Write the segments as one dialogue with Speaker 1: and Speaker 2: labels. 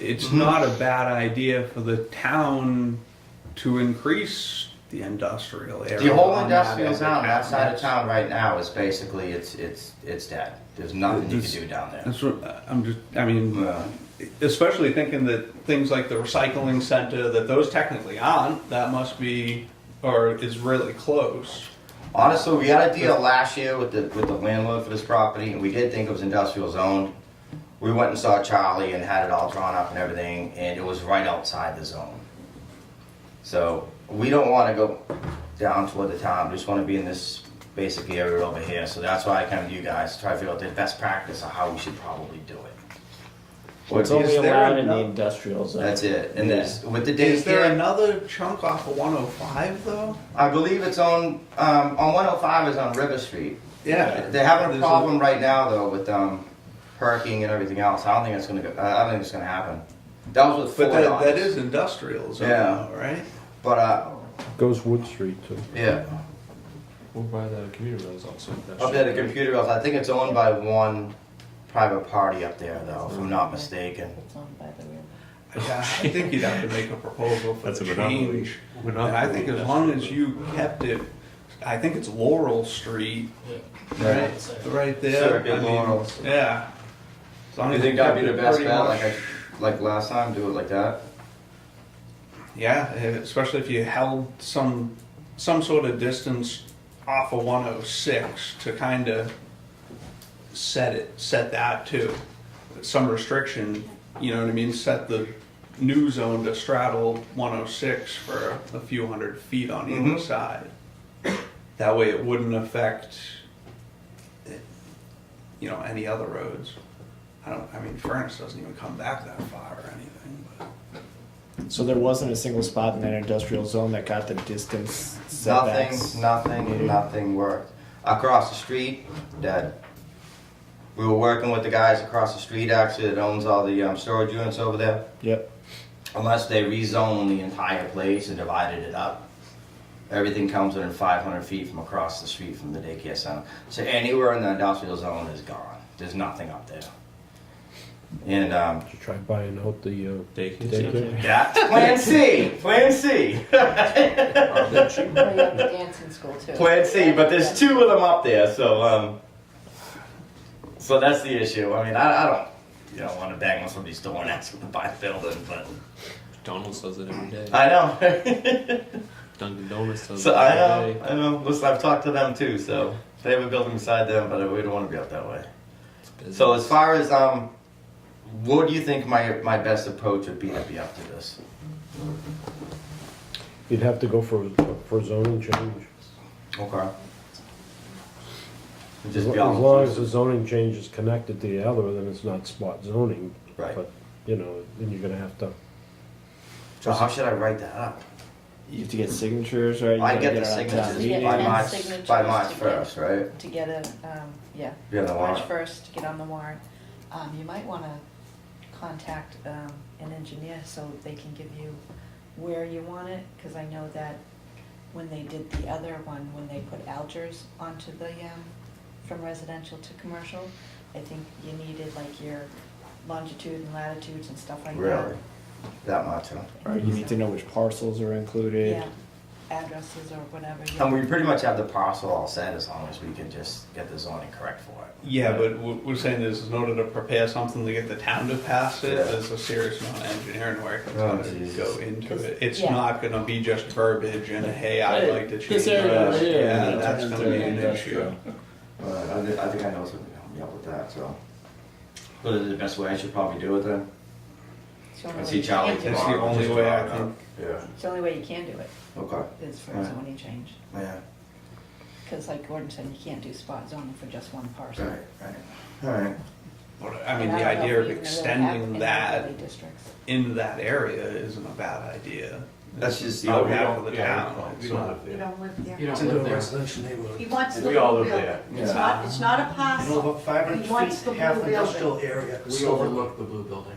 Speaker 1: it's
Speaker 2: Mm-hmm.
Speaker 1: not a bad idea for the town to increase the industrial area.
Speaker 2: The whole
Speaker 1: on that
Speaker 2: industrial
Speaker 1: as a
Speaker 2: zone outside of town right now is basically, it's, it's, it's dead. There's nothing you can
Speaker 1: This-
Speaker 2: do down there. Uh,
Speaker 1: That's what I'm just. I mean,
Speaker 2: Yeah.
Speaker 1: especially thinking that things like the recycling center, that those technically aren't. That must be, or is really close.
Speaker 2: Honestly, we had a deal last year with the, with the landlord for this property, and we did think it was industrial zoned. We went and saw Charlie and had it all drawn up and everything, and it was right outside the zone. So, we don't wanna go down toward the town, we just wanna be in this basic area over here, so that's why I come to you guys, to try to figure out the best practice of how we should probably do it.
Speaker 1: What
Speaker 3: It's only
Speaker 1: is there
Speaker 3: allowed in the
Speaker 1: ano-
Speaker 3: industrial zone.
Speaker 2: That's it, and this, with the
Speaker 1: Is there
Speaker 2: daycare,
Speaker 1: another chunk off of 105 though?
Speaker 2: I believe it's on, um, on one oh five is on River Street.
Speaker 1: Yeah,
Speaker 2: They're having a
Speaker 1: There's
Speaker 2: problem right now though with um, parking and everything else. I don't think it's gonna go. I don't think it's gonna happen. That was with
Speaker 1: But
Speaker 2: Ford
Speaker 1: that,
Speaker 2: on
Speaker 1: that
Speaker 2: it.
Speaker 1: is industrial zone,
Speaker 2: Yeah.
Speaker 1: though, right?
Speaker 2: But uh,
Speaker 4: Goes Wood Street too.
Speaker 2: yeah,
Speaker 4: Or by the commuter rails also. that
Speaker 2: up there the
Speaker 4: street.
Speaker 2: computer else. I think it's owned by one private party up there though, if I'm not mistaken.
Speaker 5: It's on by the river.
Speaker 1: Yeah, I think you'd have to make a proposal for
Speaker 4: That's
Speaker 1: the
Speaker 4: a monopoly.
Speaker 1: change. And
Speaker 4: Monopoly
Speaker 1: I think as long as you kept it, I think it's Laurel Street, right, right
Speaker 2: Sure,
Speaker 1: there.
Speaker 2: it'd be
Speaker 1: I mean,
Speaker 2: Laurel.
Speaker 1: Yeah. As long
Speaker 2: You
Speaker 1: as
Speaker 2: think that'd
Speaker 1: kept
Speaker 2: be the
Speaker 1: it
Speaker 2: best
Speaker 1: pretty
Speaker 2: bet?
Speaker 1: much-
Speaker 2: Like I, like last time, do it like that.
Speaker 1: Yeah, eh, especially if you held some, some sort of distance off of one oh six to kind of set it, set that too. Some restriction, you know what I mean, set the new zone to straddle one oh six for a few hundred feet on either
Speaker 2: Mhm.
Speaker 1: side. That way it wouldn't affect, eh, you know, any other roads. I don't, I mean, Furnace doesn't even come back that far or anything, but.
Speaker 3: So there wasn't a single spot in that industrial zone that got the distance setbacks.
Speaker 2: Nothing, nothing, nothing worked. Across the street, dead. We were working with the guys across the street actually that owns all the um, storage units over there.
Speaker 3: Yep.
Speaker 2: unless they rezone the entire place and divided it up. Everything comes within five hundred feet from across the street from the daycare center. So anywhere in the industrial zone is gone. There's nothing up there. And um,
Speaker 4: Did you try buying out the uh,
Speaker 3: Daycare.
Speaker 4: daycare?
Speaker 2: that's Plan C. Plan C.
Speaker 5: Well, you have the dancing school too.
Speaker 2: Plan C. But there's two of them up there, so um, so that's the issue. I mean, I, I don't. You don't want to bang on somebody's door and ask them to buy a building, but
Speaker 6: McDonald's does it every day.
Speaker 2: I know.
Speaker 6: Dunkin' Donuts does
Speaker 2: So
Speaker 6: it
Speaker 2: I
Speaker 6: every day.
Speaker 2: know, I know. Listen, I've talked to them too, so they have a building beside them, but we don't want to be up that way.
Speaker 6: It's busy.
Speaker 2: So as far as um, what do you think my my best approach would be to be up to this?
Speaker 4: You'd have to go for, for zoning change.
Speaker 2: Okay. It'd
Speaker 4: As
Speaker 2: Just
Speaker 4: lo-
Speaker 2: be
Speaker 4: as
Speaker 2: all
Speaker 4: long as the zoning change is connected to the other, then it's not spot zoning.
Speaker 2: Right.
Speaker 4: But, you know, then you're gonna have to,
Speaker 2: So how should I write that up?
Speaker 3: You have to get signatures, right? You
Speaker 2: I get
Speaker 3: gotta
Speaker 2: the
Speaker 3: it on town
Speaker 2: signatures
Speaker 3: meeting.
Speaker 2: by
Speaker 5: Yeah,
Speaker 2: March
Speaker 5: signatures
Speaker 2: by March
Speaker 5: to get-
Speaker 2: first, right?
Speaker 5: To get a, um, yeah,
Speaker 2: Be on the
Speaker 5: March
Speaker 2: warrant.
Speaker 5: first, to get on the warrant, um, you might wanna contact, um, an engineer so they can give you where you want it, cause I know that when they did the other one, when they put Algers onto the, um, from residential to commercial, I think you needed like your longitude and latitudes and stuff like that.
Speaker 2: Really, that much, huh?
Speaker 3: Or you need to know which parcels are included.
Speaker 5: Yeah, addresses or whatever. yeah.
Speaker 2: And we pretty much have the parcel all set as long as we can just get the zoning correct for it.
Speaker 1: Yeah, but what we're saying is, in order to prepare something to get the town to pass it,
Speaker 2: Yeah.
Speaker 1: there's a serious amount of engineering work that's
Speaker 2: Oh,
Speaker 1: gonna
Speaker 2: Jesus.
Speaker 1: go into
Speaker 5: 'Cause-
Speaker 1: it. It's
Speaker 5: yeah.
Speaker 1: not gonna be just verbiage and, hey, I'd
Speaker 3: Hey,
Speaker 1: like to change
Speaker 3: this area
Speaker 2: right
Speaker 1: this.
Speaker 2: here,
Speaker 1: Yeah,
Speaker 2: yeah,
Speaker 1: that's
Speaker 3: turns
Speaker 1: gonna
Speaker 3: into
Speaker 1: be an issue.
Speaker 3: industrial.
Speaker 2: Uh, I, thi- I think I know something to help me out with that, so. But is it the best way I should probably do it then?
Speaker 5: It's the only
Speaker 2: I
Speaker 5: way
Speaker 2: see
Speaker 5: you
Speaker 2: Charlie
Speaker 5: can do it.
Speaker 1: It's the
Speaker 2: tomorrow.
Speaker 1: only
Speaker 2: just
Speaker 1: way I
Speaker 2: about,
Speaker 1: can-
Speaker 2: Yeah,
Speaker 5: It's the only way you can do it,
Speaker 2: okay,
Speaker 5: is for a
Speaker 2: Right.
Speaker 5: zoning change,
Speaker 2: yeah,
Speaker 5: because like Gordon said, you can't do spot zoning for just one parcel.
Speaker 2: right, right, alright.
Speaker 1: But, I mean, the
Speaker 5: And don't know
Speaker 1: idea
Speaker 5: if
Speaker 1: of
Speaker 5: even really have
Speaker 1: extending
Speaker 5: any
Speaker 1: that
Speaker 5: overlay districts.
Speaker 1: in that area isn't a bad idea.
Speaker 2: That's just-
Speaker 1: Not
Speaker 2: yeah,
Speaker 1: bad for the
Speaker 7: yeah,
Speaker 1: town.
Speaker 7: we
Speaker 1: It's
Speaker 7: don't
Speaker 1: not-
Speaker 7: live there.
Speaker 8: don't live
Speaker 6: You
Speaker 8: there.
Speaker 6: don't
Speaker 7: It's into
Speaker 6: live
Speaker 7: a
Speaker 6: there.
Speaker 7: residential
Speaker 8: He
Speaker 7: neighborhood.
Speaker 8: wants the
Speaker 7: We all
Speaker 8: whole
Speaker 7: live
Speaker 8: building.
Speaker 7: there.
Speaker 8: It's
Speaker 2: Yeah.
Speaker 8: not, it's not a
Speaker 7: You know,
Speaker 8: parcel.
Speaker 7: about five
Speaker 8: He wants
Speaker 7: hundred
Speaker 8: the
Speaker 7: feet, half
Speaker 8: blue
Speaker 7: industrial area.
Speaker 6: We overlook the blue building.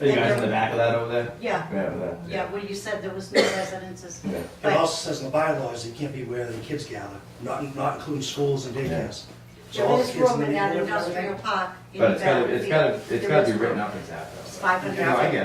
Speaker 2: Are you guys in the back of that over there?
Speaker 8: Yeah,
Speaker 2: Yeah, over there.
Speaker 8: yeah, well, you said there was no residences.
Speaker 2: Yeah.
Speaker 8: But-
Speaker 7: It also says in the bylaws, it can't be where the kids gather, not, not including schools and daycares. So all
Speaker 8: There
Speaker 7: the
Speaker 8: is
Speaker 7: kids in
Speaker 8: room
Speaker 7: the
Speaker 8: in that
Speaker 7: neighborhood,
Speaker 8: industrial park. in
Speaker 2: But it's
Speaker 8: the back
Speaker 2: gotta, it's
Speaker 8: field.
Speaker 2: gotta, it's
Speaker 8: There
Speaker 2: gotta
Speaker 8: is
Speaker 2: be
Speaker 8: room.
Speaker 2: written up exactly.
Speaker 8: It's 500.
Speaker 2: No, I get it.